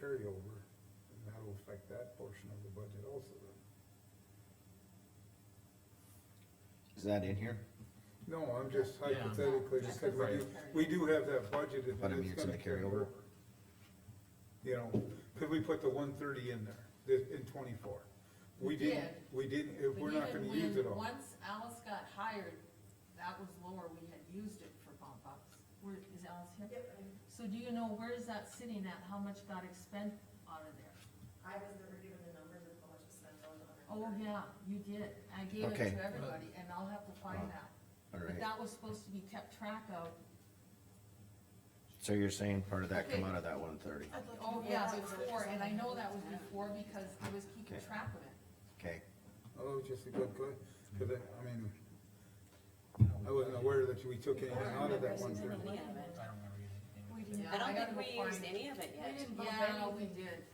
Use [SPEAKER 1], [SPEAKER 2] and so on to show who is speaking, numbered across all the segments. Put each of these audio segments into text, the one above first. [SPEAKER 1] carryover, and that'll affect that portion of the budget also then.
[SPEAKER 2] Is that in here?
[SPEAKER 1] No, I'm just
[SPEAKER 3] Yeah.
[SPEAKER 1] hypothetically,
[SPEAKER 4] Just
[SPEAKER 1] because we
[SPEAKER 4] the
[SPEAKER 1] do, we do have that budgeted.
[SPEAKER 2] But I
[SPEAKER 1] and
[SPEAKER 2] mean, it's in
[SPEAKER 1] gonna
[SPEAKER 2] the
[SPEAKER 1] carry
[SPEAKER 2] carryover.
[SPEAKER 1] You know, because we put the one thirty in there, this, in twenty-four. We
[SPEAKER 4] We
[SPEAKER 1] didn't,
[SPEAKER 4] did.
[SPEAKER 1] we didn't, if we're not gonna use it all.
[SPEAKER 4] Once Alice got hired, that was lower, we had used it for bump ups. Where, is Alice here? So do you know where is that sitting at, how much got expended out of there?
[SPEAKER 5] I was never given the numbers of how much was spent on the hundred.
[SPEAKER 4] Oh, yeah, you did, I gave it
[SPEAKER 2] Okay.
[SPEAKER 4] to everybody, and I'll have to find
[SPEAKER 2] Wow.
[SPEAKER 4] that.
[SPEAKER 2] All
[SPEAKER 4] But
[SPEAKER 2] right,
[SPEAKER 4] that was supposed to be kept track of,
[SPEAKER 2] so you're saying part of that come
[SPEAKER 4] Okay.
[SPEAKER 2] out of that one thirty,
[SPEAKER 4] oh, yeah, before, and I know that was before because I was keeping
[SPEAKER 2] Okay.
[SPEAKER 4] track of it.
[SPEAKER 2] okay,
[SPEAKER 1] Although Oh, it's just a good, because I, I mean, I wasn't aware that we took anything out of that one thirty.
[SPEAKER 3] I don't remember anything.
[SPEAKER 4] We didn't.
[SPEAKER 6] I don't
[SPEAKER 4] gotta
[SPEAKER 6] think we
[SPEAKER 4] go
[SPEAKER 6] used
[SPEAKER 4] find-
[SPEAKER 6] any of it
[SPEAKER 4] We
[SPEAKER 6] yet.
[SPEAKER 4] didn't
[SPEAKER 5] bump
[SPEAKER 4] Yeah,
[SPEAKER 5] any.
[SPEAKER 4] we did.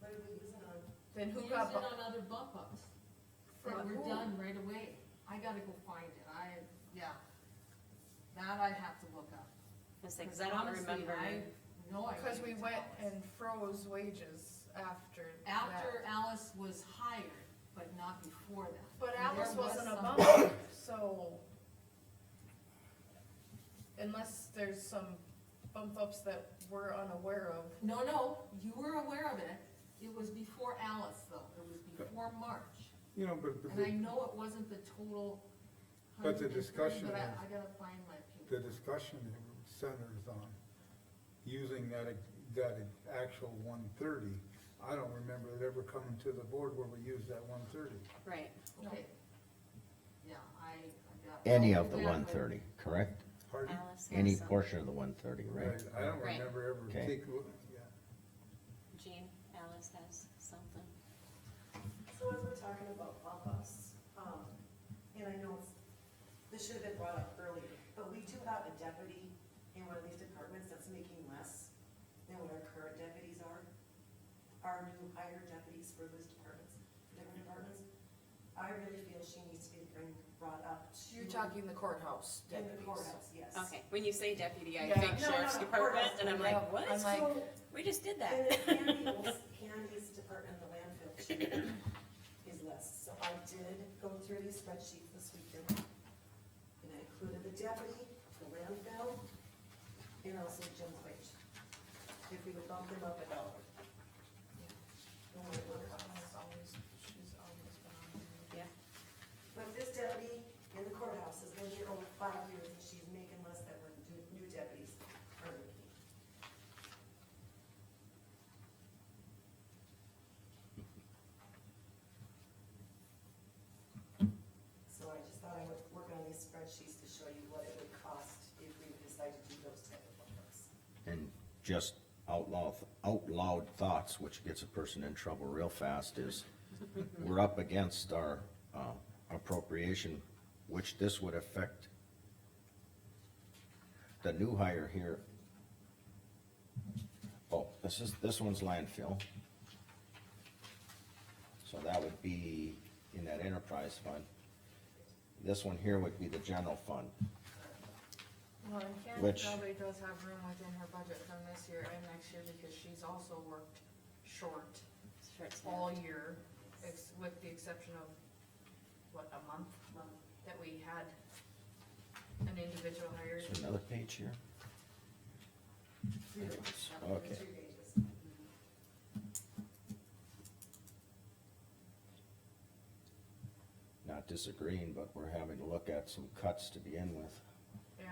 [SPEAKER 5] What did we use it on?
[SPEAKER 4] Then who got? Used it on other bump ups. That
[SPEAKER 5] From
[SPEAKER 4] were
[SPEAKER 5] who?
[SPEAKER 4] done right away. I gotta go find it. I, yeah. That I have to look up.
[SPEAKER 6] It's like, 'cause I don't
[SPEAKER 4] Honestly,
[SPEAKER 6] remember.
[SPEAKER 4] I know I.
[SPEAKER 7] Cause
[SPEAKER 4] gave
[SPEAKER 7] we
[SPEAKER 4] it to
[SPEAKER 7] went
[SPEAKER 4] Alice.
[SPEAKER 7] and froze wages after that.
[SPEAKER 4] After Alice was hired, but not before that.
[SPEAKER 7] But
[SPEAKER 4] And
[SPEAKER 7] Alice
[SPEAKER 4] there was
[SPEAKER 7] wasn't a
[SPEAKER 4] some-
[SPEAKER 7] bump, so. Unless there's some bump ups that we're unaware of.
[SPEAKER 4] No, no, you were aware of it. It was before Alice though. It was before March.
[SPEAKER 1] You know, but, but
[SPEAKER 4] And I
[SPEAKER 1] the-
[SPEAKER 4] know it wasn't the total.
[SPEAKER 1] But the
[SPEAKER 4] 130,
[SPEAKER 1] discussion
[SPEAKER 4] But I,
[SPEAKER 1] is-
[SPEAKER 4] I gotta find my paper.
[SPEAKER 1] the discussion centers on using that, that actual one thirty. I don't remember it ever coming to the board where we used that one thirty.
[SPEAKER 6] Right.
[SPEAKER 4] Okay. Yeah, I, I got.
[SPEAKER 2] any of the
[SPEAKER 4] Yeah, but-
[SPEAKER 2] one thirty, correct?
[SPEAKER 1] Pardon?
[SPEAKER 6] Alice has
[SPEAKER 2] Any
[SPEAKER 6] some.
[SPEAKER 2] portion of the one thirty, right?
[SPEAKER 1] I don't
[SPEAKER 6] Uh, Right.
[SPEAKER 1] remember ever take,
[SPEAKER 2] Okay.
[SPEAKER 1] yeah.
[SPEAKER 6] Jean, Alice has something.
[SPEAKER 5] So as we're talking about bump ups, um, and I know it's, this should have been brought up earlier, but we do have a deputy in one of these departments that's making less than what our current deputies are. Our new hired deputies for those departments, different departments. I really feel she needs to be bring, brought up to.
[SPEAKER 7] You're talking the courthouse
[SPEAKER 5] In the
[SPEAKER 7] deputies.
[SPEAKER 5] courthouse, yes.
[SPEAKER 6] Okay, when you say deputy, I
[SPEAKER 7] Yeah.
[SPEAKER 6] think
[SPEAKER 5] No,
[SPEAKER 6] sheriff's
[SPEAKER 5] no, no,
[SPEAKER 6] department,
[SPEAKER 5] courthouse,
[SPEAKER 6] and I'm
[SPEAKER 7] yeah.
[SPEAKER 6] like,
[SPEAKER 7] I'm
[SPEAKER 6] what?
[SPEAKER 7] like-
[SPEAKER 5] So,
[SPEAKER 6] We just did
[SPEAKER 5] And
[SPEAKER 6] that.
[SPEAKER 5] then Candy's, Candy's department, the landfill, she is less, so I did go through these spreadsheets this weekend. And I included the deputy, the landfill, and also Jim's wage. If we would bump them up a dollar. No matter what it
[SPEAKER 7] Almost
[SPEAKER 5] costs.
[SPEAKER 7] always- she's always been on there.
[SPEAKER 6] Yeah,
[SPEAKER 5] But this deputy in the courthouse has been here over five years, and she's making less than what new- new deputies are making. So I just thought I would work on these spreadsheets to show you what it would cost if we decide to do those type of numbers.
[SPEAKER 2] And just outlaw, outlawed thoughts, which gets a person in trouble real fast, is we're up against our, uh, appropriation, which this would affect the new hire here. Oh, this is, this one's landfill. So that would be in that enterprise fund. This one here would be the general fund.
[SPEAKER 7] Well, and Candy
[SPEAKER 2] Which-
[SPEAKER 7] probably does have room within her budget from this year and next year because she's also worked short
[SPEAKER 6] short staff.
[SPEAKER 7] all year, ex- with the exception of, what, a month? That we had an individual hired.
[SPEAKER 2] Is there another page here?
[SPEAKER 5] Three
[SPEAKER 2] There it is. Okay.
[SPEAKER 5] Three pages.
[SPEAKER 2] not disagreeing, but we're having to look at some cuts to begin with.
[SPEAKER 7] Yeah.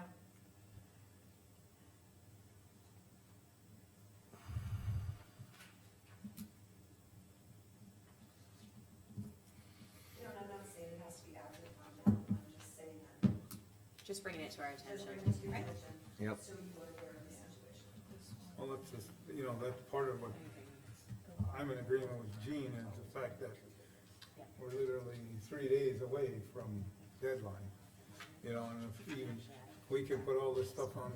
[SPEAKER 5] You know, and I'm not saying it has to be acted upon now, I'm just saying that.
[SPEAKER 6] Just bringing it to our
[SPEAKER 5] As
[SPEAKER 6] attention.
[SPEAKER 5] we're into due
[SPEAKER 6] Right.
[SPEAKER 5] diligence,
[SPEAKER 2] Yep.
[SPEAKER 5] So you are aware of the situation.
[SPEAKER 1] Well, that's just, you know, that's part of what, I'm in agreement with Gene and the fact that we're literally three days away from deadline. You know, and if even, we can put all this stuff on,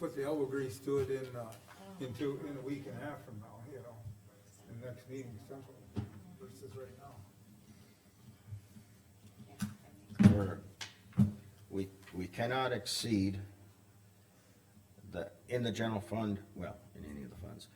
[SPEAKER 1] put the elbow grease to it in, uh, in two, in a week and a half from now, you know? The next meeting, something versus right now.
[SPEAKER 6] Yeah, I think-
[SPEAKER 2] We're, we, we cannot exceed the, in the general fund, well, in any of the funds,